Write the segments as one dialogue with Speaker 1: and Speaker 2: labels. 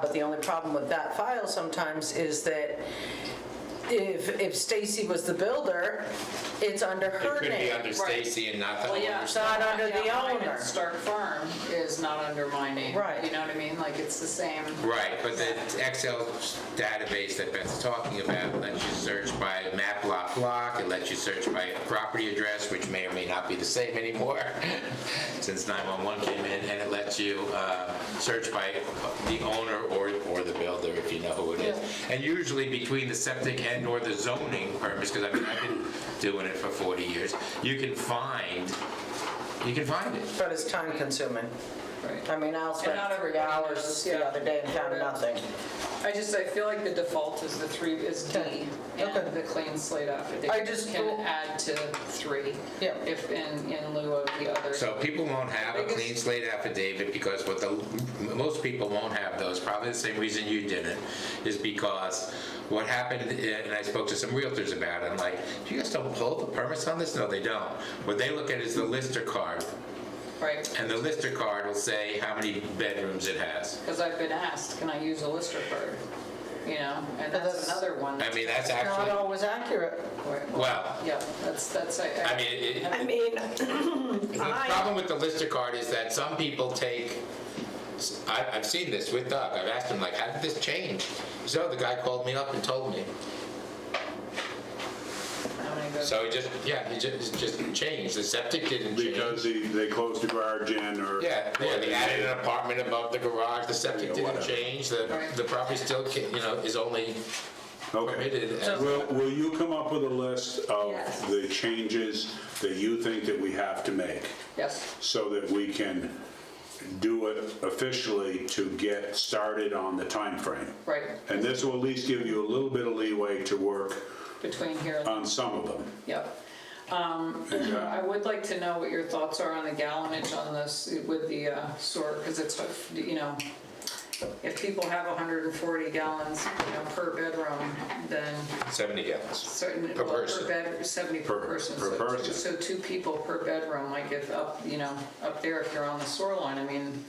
Speaker 1: But the only problem with that file sometimes is that if, if Stacy was the builder, it's under
Speaker 2: It
Speaker 1: her
Speaker 2: could be
Speaker 1: name.
Speaker 2: under
Speaker 3: Right.
Speaker 2: Stacy and not the
Speaker 3: Well, yeah.
Speaker 2: owner.
Speaker 1: It's not under the
Speaker 3: Yeah, mine at
Speaker 1: owner.
Speaker 3: Stark Farm is not under my name.
Speaker 1: Right.
Speaker 3: You know what I mean? Like, it's the same.
Speaker 2: Right, but the Excel database that Beth's talking about lets you search by map lot block, it lets you search by property address, which may or may not be the same anymore since 911 came in, and it lets you uh, search by the owner or, or the builder if you know who it is. And usually between the septic and or the zoning purpose, because I mean, I've been doing it for 40 years, you can find, you can find it.
Speaker 1: But it's time consuming. I mean, I'll spend
Speaker 3: not
Speaker 1: three
Speaker 3: everybody
Speaker 1: hours
Speaker 3: knows,
Speaker 1: the
Speaker 3: yeah.
Speaker 1: other day and found nothing.
Speaker 3: I just, I feel like the default is the three, is D,
Speaker 1: Okay. Okay.
Speaker 3: and the clean slate
Speaker 1: I
Speaker 3: affidavit
Speaker 1: just
Speaker 3: can
Speaker 1: don't-
Speaker 3: add to three.
Speaker 1: Yeah.
Speaker 3: If in, in lieu of the other.
Speaker 2: So people won't have a
Speaker 3: Biggest-
Speaker 2: clean slate affidavit because what the, m- most people won't have those, probably the same reason you didn't, is because what happened, and I spoke to some realtors about it, I'm like, do you guys don't pull the permits on this? No, they don't. What they look at is the lister card,
Speaker 3: Right.
Speaker 2: and the lister card will say how many bedrooms it has.
Speaker 3: Because I've been asked, can I use a lister card? You know, and
Speaker 1: But
Speaker 3: that's
Speaker 1: that's-
Speaker 3: another one.
Speaker 2: I mean, that's
Speaker 1: Not
Speaker 2: actually,
Speaker 1: always accurate.
Speaker 2: well,
Speaker 3: Yeah, that's, that's.
Speaker 2: I mean, it- it-
Speaker 1: I mean,
Speaker 2: The
Speaker 1: I-
Speaker 2: problem with the Lister card is that some people take, I, I've seen this with Doug, I've asked him like, how did this change? So the guy called me up and told me.
Speaker 3: how many votes?
Speaker 2: So he just, yeah, he just, just changed, the septic didn't change.
Speaker 4: Because they, they closed the garage in or.
Speaker 2: Yeah, yeah,
Speaker 4: or
Speaker 2: they added an apartment above the garage, the septic
Speaker 4: Yeah,
Speaker 2: didn't
Speaker 4: whatever.
Speaker 2: change, the, the property still, ca- you know, is only
Speaker 4: Okay.
Speaker 2: permitted as.
Speaker 4: Will, will you come up with a list of
Speaker 3: Yes.
Speaker 4: the changes that you think that we have to make
Speaker 3: Yes,
Speaker 4: so that we can do it officially to get started on the time frame?
Speaker 3: right,
Speaker 4: And this will at least give you a little bit of leeway to work
Speaker 3: between here and,
Speaker 4: on some of them.
Speaker 3: yep. Um, I would like to know what your thoughts are on the gallonage on this with the uh, sort, because it's, you know, if people have 140 gallons, you know, per bedroom, then
Speaker 2: Seventy gallons.
Speaker 3: certain,
Speaker 2: Per
Speaker 3: well, per
Speaker 2: person.
Speaker 3: bed, 70 per
Speaker 4: Per-
Speaker 3: person. so
Speaker 4: per
Speaker 3: two-
Speaker 4: person.
Speaker 3: So two people per bedroom, like if up, you know, up there, if you're on the shoreline, I mean,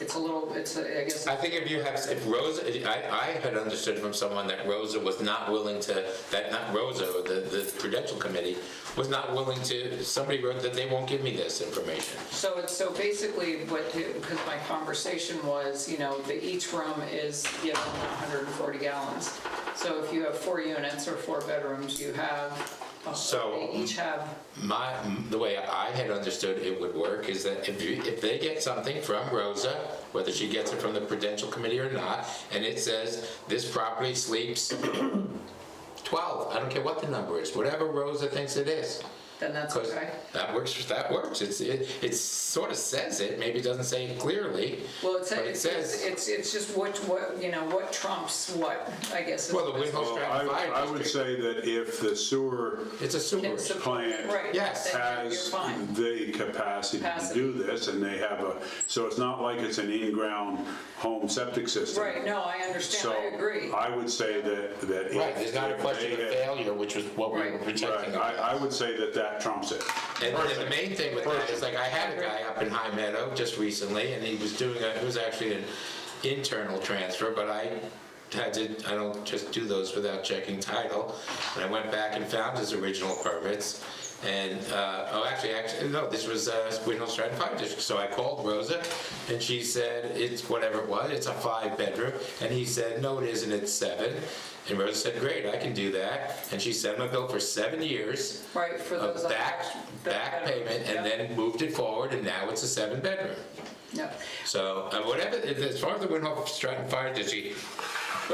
Speaker 3: it's a little, it's, a- I guess,
Speaker 2: I think if you have, if Rosa, I, I had understood from someone that Rosa was not willing to, that not Rosa, the, the prudential committee, was not willing to, somebody wrote that they won't give me this information.
Speaker 3: So it's, so basically what, because my conversation was, you know, that each room is given 140 gallons. So if you have four units or four bedrooms, you have,
Speaker 2: So-
Speaker 3: they each have,
Speaker 2: My, the way I had understood it would work is that if you, if they get something from Rosa, whether she gets it from the prudential committee or not, and it says, this property sleeps twelve, I don't care what the number is, whatever Rosa thinks it is.
Speaker 3: then that's
Speaker 2: Because
Speaker 3: okay.
Speaker 2: that works, that works. It's, it, it sort of says it, maybe it doesn't say it clearly.
Speaker 3: Well, it's,
Speaker 2: But it
Speaker 3: it's,
Speaker 2: says,
Speaker 3: it's, it's just what, what, you know, what trumps what, I guess. is-
Speaker 2: well, the Windhoe
Speaker 4: Well,
Speaker 2: Stratton
Speaker 4: I, I
Speaker 2: Fire
Speaker 4: would
Speaker 2: District,
Speaker 4: say that if the sewer
Speaker 2: it's a sewer.
Speaker 3: Can support-
Speaker 4: Plan.
Speaker 3: Right.
Speaker 2: Yes.
Speaker 3: then You're
Speaker 4: has
Speaker 3: fine.
Speaker 4: the capacity to
Speaker 3: Capacity.
Speaker 4: do this, and they have a, so it's not like it's an in-ground home septic system.
Speaker 3: Right, no, I understand, I agree.
Speaker 4: So I would say that, that. if-
Speaker 2: Right, there's not a
Speaker 4: if
Speaker 2: question of
Speaker 4: they had-
Speaker 2: failure, which was what we were
Speaker 3: Right.
Speaker 2: protecting.
Speaker 4: Right, I, I would say that that trumps it.
Speaker 2: And and the main thing with that is like, I had a guy up in High Meadow just recently, and he was doing, a- it was actually an internal transfer, but I had to, I don't just do those without checking title. And I went back and found his original permits, and, uh, oh, actually, actually, no, this was uh, Windhoe Stratton Fire District. So I called Rosa, and she said, it's whatever it was, it's a five-bedroom, and he said, no, it isn't, it's seven. And Rosa said, great, I can do that, and she sent him a bill for seven years
Speaker 3: Right, for those.
Speaker 2: a back,
Speaker 3: the
Speaker 2: back
Speaker 3: bedrooms,
Speaker 2: payment
Speaker 3: yeah.
Speaker 2: and then moved it forward and now it's a seven bedroom.
Speaker 3: Yeah.
Speaker 2: So, uh, whatever, as far as the Windhoff Stratton Fire District,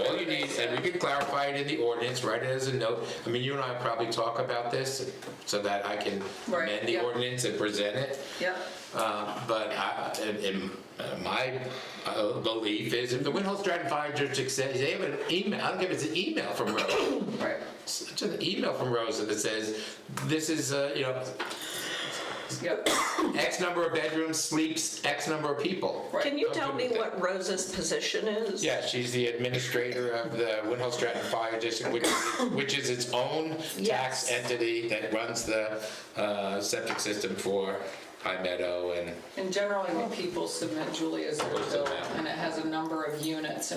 Speaker 2: all you need, and we can clarify it in the ordinance, write it as a note. I mean, you and I probably talk about this so that I can
Speaker 3: Right,
Speaker 2: amend the
Speaker 3: yeah.
Speaker 2: ordinance and present it.
Speaker 3: Yep.
Speaker 2: Uh, But I- in- in, uh, my uh, belief is if the Windhoff Stratton Fire District says, they have an email, I'll give it an email from Rose.
Speaker 3: right,
Speaker 2: It's an email from Rosa that says, this is, uh, you know,
Speaker 3: yep.
Speaker 2: X number of bedrooms sleeps X number of people.
Speaker 3: Right.
Speaker 5: Can you
Speaker 2: I'm
Speaker 5: tell
Speaker 2: good
Speaker 5: me
Speaker 2: with that.
Speaker 5: what Rosa's position is?
Speaker 2: Yeah, she's the administrator of the Windhoe Stratton Fire District, which is, which is its own tax
Speaker 5: Yes.
Speaker 2: entity that runs the uh, septic system for High Meadow and
Speaker 3: And generally, when people submit Julia's their
Speaker 2: What's the
Speaker 3: bill,
Speaker 2: map?
Speaker 3: and it has a number of units, and